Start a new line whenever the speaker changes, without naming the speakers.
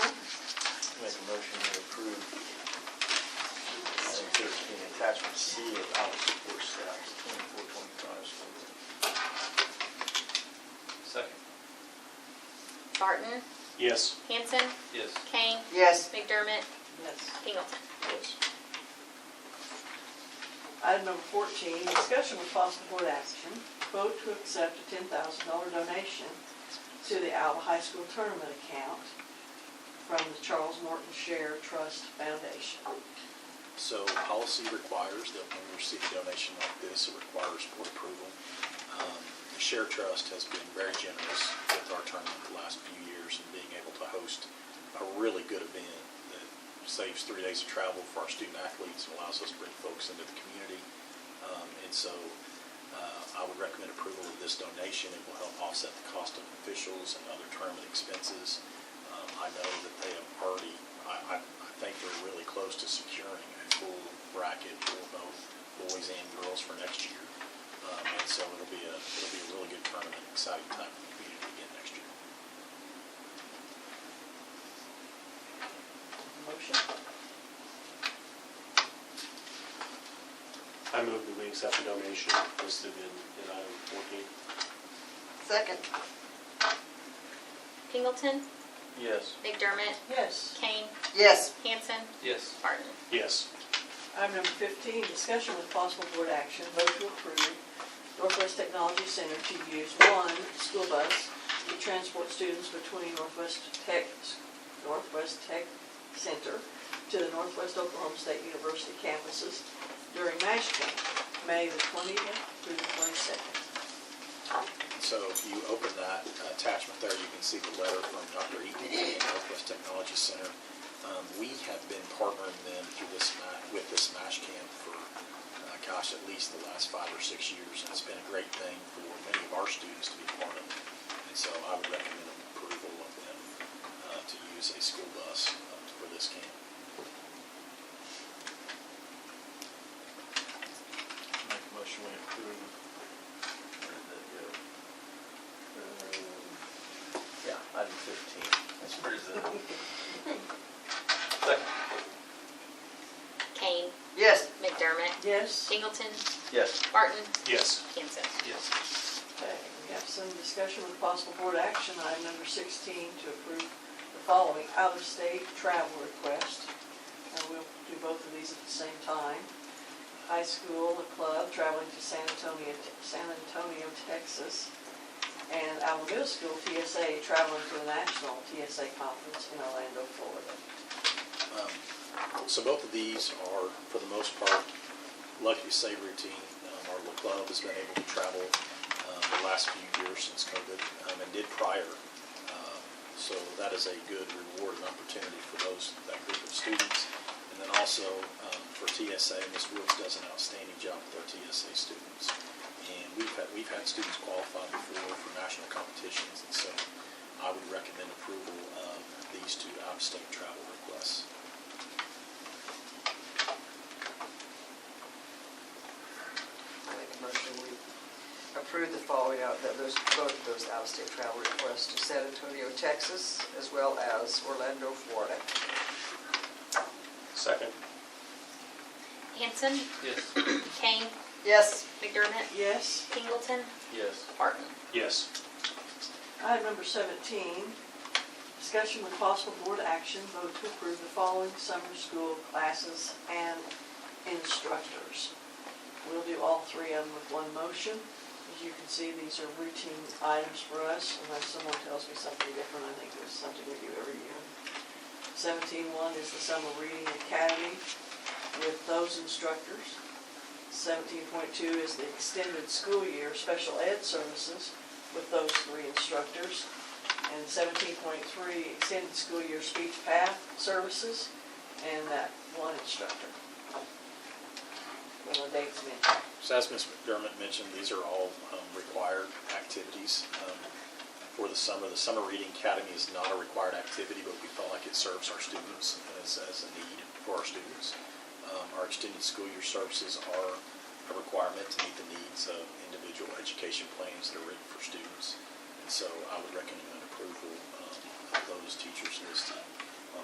can see it out of support staff, twenty-four, twenty-five.
Second.
Barton,
Yes.
Hanson,
Yes.
Kane,
Yes.
McDermott,
Yes.
Pingleton.
Yes.
Item number fourteen, discussion with possible board action, vote to accept a ten thousand dollar donation to the Alva High School Tournament account from the Charles Morton Share Trust Foundation.
So policy requires that when we receive a donation like this, it requires board approval. Um, The Share Trust has been very generous with our tournament the last few years and being able to host a really good event that saves three days of travel for our student athletes and allows us to bring folks into the community. Um, And so uh, I would recommend approval of this donation. It will help offset the cost of officials and other tournament expenses. Um, I know that they have already, I, I, I think they're really close to securing a full bracket for both boys and girls for next year. Um, and so it'll be a, it'll be a really good tournament, exciting time for the community again next year.
Motion?
I move that we accept the donation listed in, in item fourteen.
Second.
Pingleton,
Yes.
McDermott,
Yes.
Kane,
Yes.
Hanson,
Yes.
Barton.
Yes.
Item number fifteen, discussion with possible board action, vote to approve Northwest Technology Center to use one school bus to transport students between Northwest Tech, Northwest Tech Center to the Northwest Oklahoma State University campuses during MASH camp, May the twentieth through the twenty-second.
So if you open that attachment there, you can see the letter from Dr. Eaton from the Northwest Technology Center. Um, We have been partnering them through this, ma- with this MASH camp for, uh, gosh, at least the last five or six years. It's been a great thing for many of our students to be part of. And so I would recommend approval of them uh, to use a school bus uh, for this camp.
Make a motion we approve. Where did that go? Um, Yeah, item fifteen. That's pretty good. Second.
Kane,
Yes.
McDermott,
Yes.
Pingleton,
Yes.
Barton,
Yes.
Hanson.
Yes.
Okay, we have some discussion with possible board action, item number 16, to approve the following out-of-state travel request. And we'll do both of these at the same time. High school, a club traveling to San Antonio, San Antonio, Texas, and Alamo Middle School TSA traveling to the national TSA conference in Orlando, Florida.
Um, So both of these are, for the most part, lucky to say routine. Um, Our little club has been able to travel um, the last few years since COVID um, and did prior. Um, So that is a good reward and opportunity for those, that group of students. And then also um, for TSA, Ms. Woods does an outstanding job with our TSA students. And we've had, we've had students qualify before for national competitions. And so I would recommend approval of these two out-of-state travel requests.
I make a motion, we approve the following out, that those, both of those out-of-state travel requests to San Antonio, Texas, as well as Orlando, Florida.
Second.
Hanson,
Yes.
Kane,
Yes.
McDermott,
Yes?
Pingleton,
Yes.
Barton.
Yes.
Item number 17, discussion with possible board action, vote to approve the following summer school classes and instructors. We'll do all three of them with one motion. As you can see, these are routine items for us unless someone tells me something different. I think there's something we do every year. 17.1 is the Summer Reading Academy with those instructors. 17.2 is the Extended School Year Special Ed Services with those three instructors. And seventeen point three, extended school year speech path services, and that one instructor. When the dates mentioned.
So as Ms. McDermott mentioned, these are all um, required activities um, for the summer. The Summer Reading Academy is not a required activity, but we felt like it serves our students as, as a need for our students. Um, Our extended school year services are a requirement to meet the needs of individual education plans that are written for students. And so I would recommend approval um, of those teachers listed